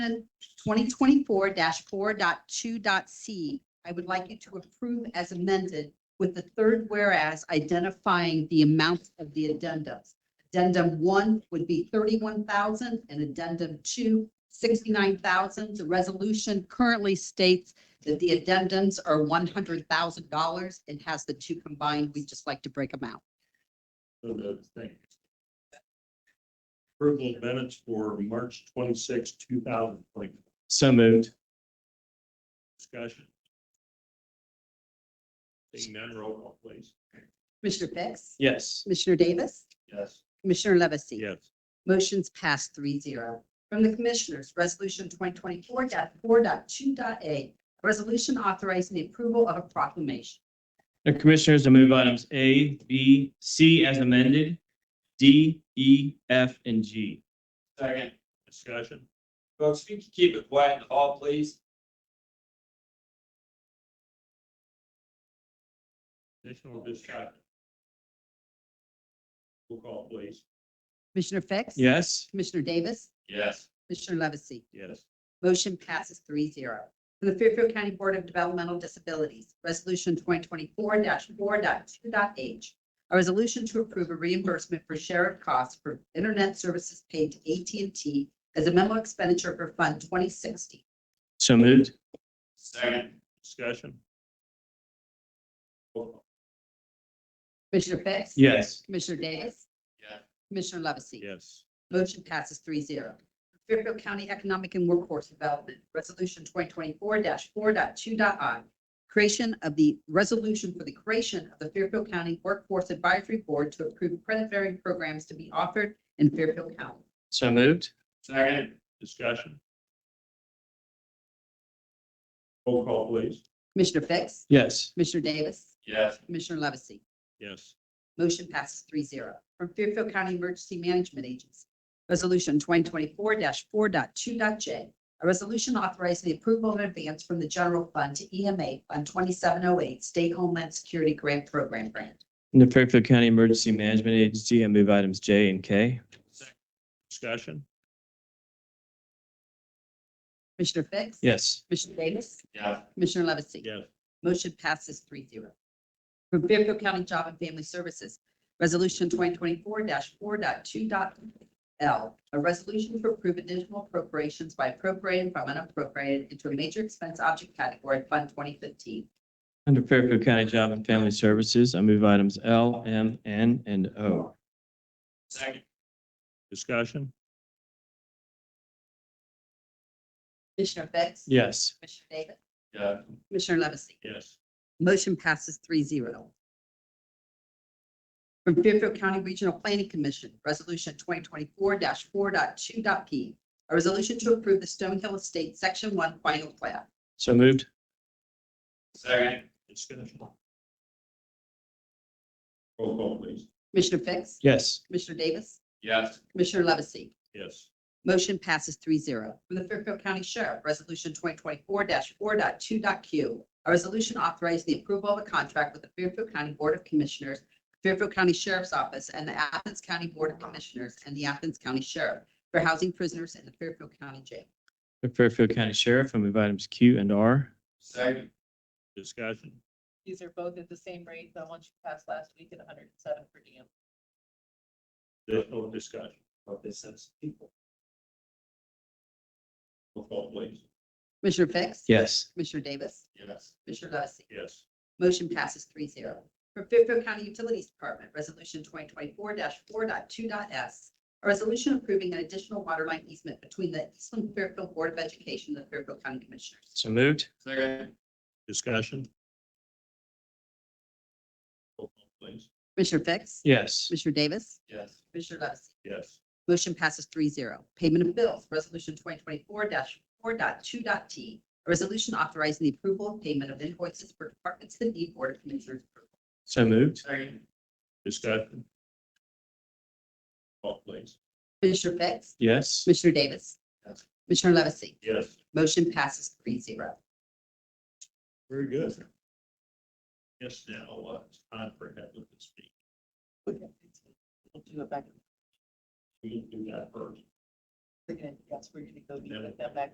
2024 4.2.c, I would like you to approve as amended with the third whereas identifying the amount of the addendums. Addendum one would be 31,000 and addendum two, 69,000. The resolution currently states that the addendums are $100,000 and has the two combined. We'd just like to break them out. So the thing. Approval of minutes for March twenty-six, two thousand twenty, So moved. discussion. Seeing none, roll call please. Commissioner Fix? Yes. Commissioner Davis? Yes. Commissioner Levesey? Yes. Motion's passed three zero. From the Commissioners, Resolution twenty twenty four 4.2.a, resolution authorizing the approval of a proclamation. The Commissioners, I move items A, B, C as amended, D, E, F, and G. Second. Discussion. Folks, if you could keep it quiet in the hall, please. Additional discussion. Roll call please. Commissioner Fix? Yes. Commissioner Davis? Yes. Commissioner Levesey? Yes. Motion passes three zero. From the Fairfield County Board of Developmental Disabilities, Resolution twenty twenty four 4.2.h, a resolution to approve a reimbursement for share of costs for internet services paid to AT&T as a memo expenditure for Fund twenty sixty. So moved. Second. Discussion. Roll call. Commissioner Fix? Yes. Commissioner Davis? Yeah. Commissioner Levesey? Yes. Motion passes three zero. Fairfield County Economic and Workforce Development, Resolution twenty twenty-four 42i Creation of the resolution for the creation of the Fairfield County Workforce Advisory Board to approve credit bearing programs to be offered in Fairfield County. So moved. Second. Discussion. Roll call please. Commissioner Fix? Yes. Commissioner Davis? Yes. Commissioner Levesey? Yes. Motion passes three zero. From Fairfield County Emergency Management Agency, Resolution twenty twenty-four 42j a resolution authorizing the approval of an advance from the general fund to EMA Fund twenty-seven oh eight State Homeland Security Grant Program Grant. The Fairfield County Emergency Management Agency, I move items J and K. Discussion. Commissioner Fix? Yes. Commissioner Davis? Yeah. Commissioner Levesey? Yes. Motion passes three zero. From Fairfield County Job and Family Services, Resolution twenty twenty-four 42l L, a resolution to approve additional appropriations by appropriating from unappropriated into a major expense object category, Fund twenty fifteen. Under Fairfield County Job and Family Services, I move items L, M, N, and O. Second. Discussion. Commissioner Fix? Yes. Commissioner Davis? Yeah. Commissioner Levesey? Yes. Motion passes three zero. From Fairfield County Regional Planning Commission, Resolution twenty twenty-four 42p A resolution to approve the Stone Hill Estate Section One Final Plat. So moved. Second. Discussion. Roll call please. Commissioner Fix? Yes. Commissioner Davis? Yes. Commissioner Levesey? Yes. Motion passes three zero. From the Fairfield County Sheriff, Resolution twenty twenty-four 42q A resolution authorizing the approval of a contract with the Fairfield County Board of Commissioners, Fairfield County Sheriff's Office, and the Athens County Board of Commissioners and the Athens County Sheriff for housing prisoners in the Fairfield County Jail. The Fairfield County Sheriff, I move items Q and R. Second. Discussion. These are both at the same rate, the one she passed last week at hundred and seven per diem. Additional discussion. What this says. Roll call please. Commissioner Fix? Yes. Commissioner Davis? Yes. Commissioner Levesey? Yes. Motion passes three zero. From Fairfield County Utilities Department, Resolution twenty twenty-four 42s A resolution approving an additional water line easement between the Eastland Fairfield Board of Education and the Fairfield County Commissioners. So moved. Second. Discussion. Roll call please. Commissioner Fix? Yes. Commissioner Davis? Yes. Commissioner Levesey? Yes. Motion passes three zero. Payment of bills, Resolution twenty twenty-four 42t A resolution authorizing the approval of payment of invoices for departments that need Board of Commissioners approval. So moved. Second. Discussion. Roll call please. Commissioner Fix? Yes. Commissioner Davis? Yes. Commissioner Levesey? Yes. Motion passes three zero. Very good. Yes, now, uh, it's time for Heather to speak. We'll do it back. We can do that first. We're gonna, yes, we're gonna go meet with them back